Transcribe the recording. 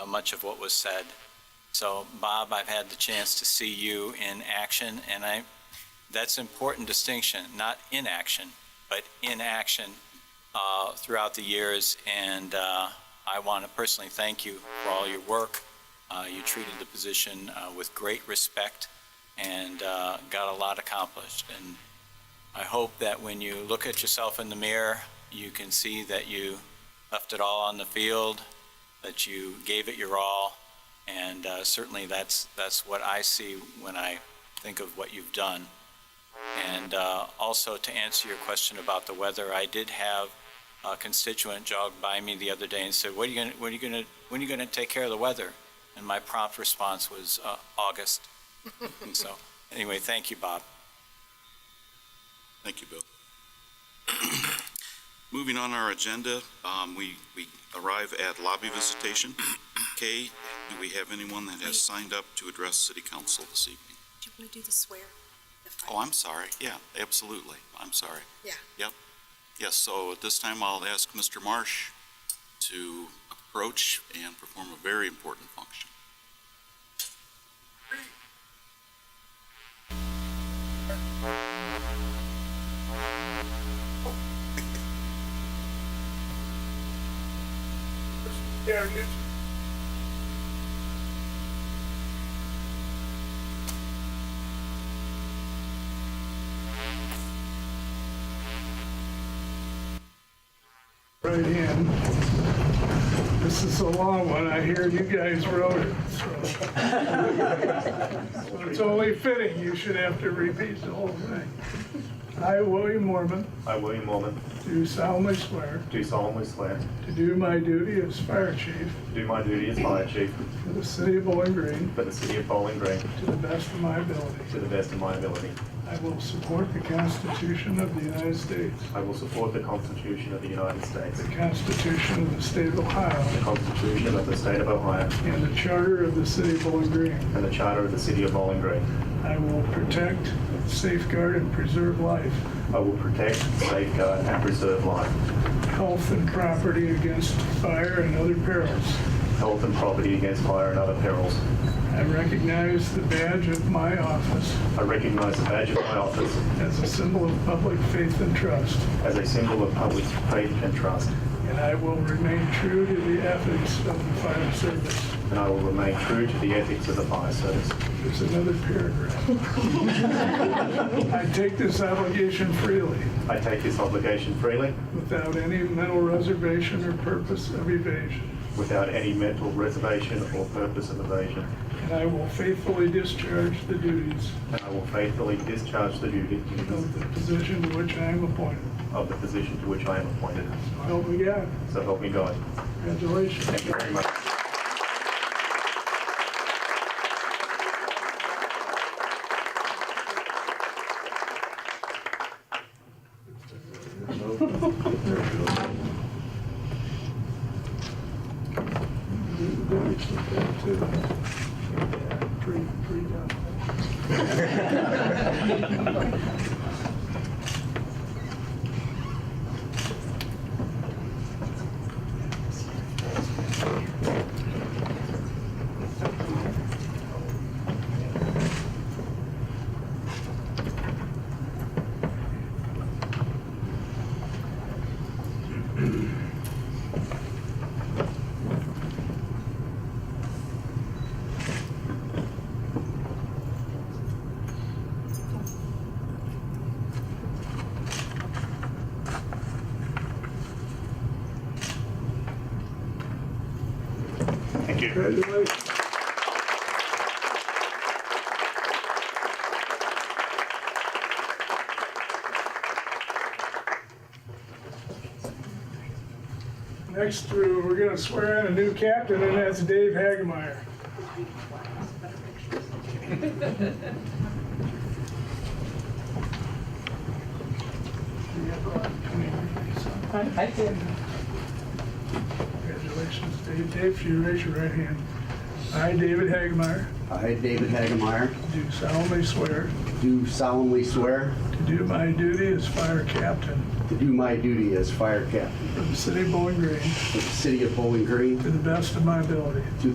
uh, much of what was said. So Bob, I've had the chance to see you in action, and I, that's important distinction, not inaction, but in action uh, throughout the years. And uh, I want to personally thank you for all your work. Uh, You treated the position uh, with great respect and uh, got a lot accomplished. And I hope that when you look at yourself in the mirror, you can see that you left it all on the field, that you gave it your all, and uh, certainly that's, that's what I see when I think of what you've done. And uh, also, to answer your question about the weather, I did have a constituent jog by me the other day and said, "What are you going? to What are you going to? When are you going to take care of the weather?" And my prompt response was uh, August. and so, anyway, thank you, Bob. Thank you, Bill. Moving on our agenda, um, we, we arrive at lobby visitation. Kay, do we have anyone that has signed up to address city council this evening? Do you want to do the swear? The Oh, I'm sorry. Yeah, absolutely. I'm sorry. Yeah. Yep. Yes, so at this time, I'll ask Mr. Marsh to approach and perform a very important function. There it is. Right in. This is a long one. I hear you guys wrote it, so. So It's only fitting you should have to repeat the whole thing. I, William Mormon, I, William Mormon, do solemnly swear do solemnly swear to do my duty as fire chief to do my duty as fire chief for the city of Bowling Green for the city of Bowling Green To the best of my ability. to the best of my ability. I will support the Constitution of the United States, I will support the Constitution of the United States, the Constitution of the State of the Ohio, Constitution of the State of Ohio, and the Charter of the City of Bowling Green. and the Charter of the City of Bowling Green. I will protect, safeguard, and preserve life, I will protect, safeguard, and preserve life, health, and property against fire and other perils. health and property against fire and other perils. I recognize the badge of my office I recognize the badge of my office as a symbol of public faith and trust, as a symbol of public faith and trust, and I will remain true to the ethics of the fire service. and I will remain true to the ethics of the fire service. There's another paragraph. I take this obligation freely, I take this obligation freely, without any mental reservation or purpose of evasion, without any mental reservation or purpose of evasion. and I will faithfully discharge the duties And I will faithfully discharge the duties of the position to which I am appointed. of the position to which I am appointed. So help me God. So help me God. Congratulations. Thank you very much. Pretty, pretty done. Thank you. Congratulations. Next, uh, we're gonna swear in a new captain, and that's Dave Hagemeyer. I did. Congratulations, Dave. Dave, if you raise your right hand. I, David Hagemeyer, I, Uh, David Hagemeyer, do solemnly swear do solemnly swear to do my duty as fire captain to do my duty as fire captain for the city of Bowling Green for the city of Bowling Green to the best of my ability.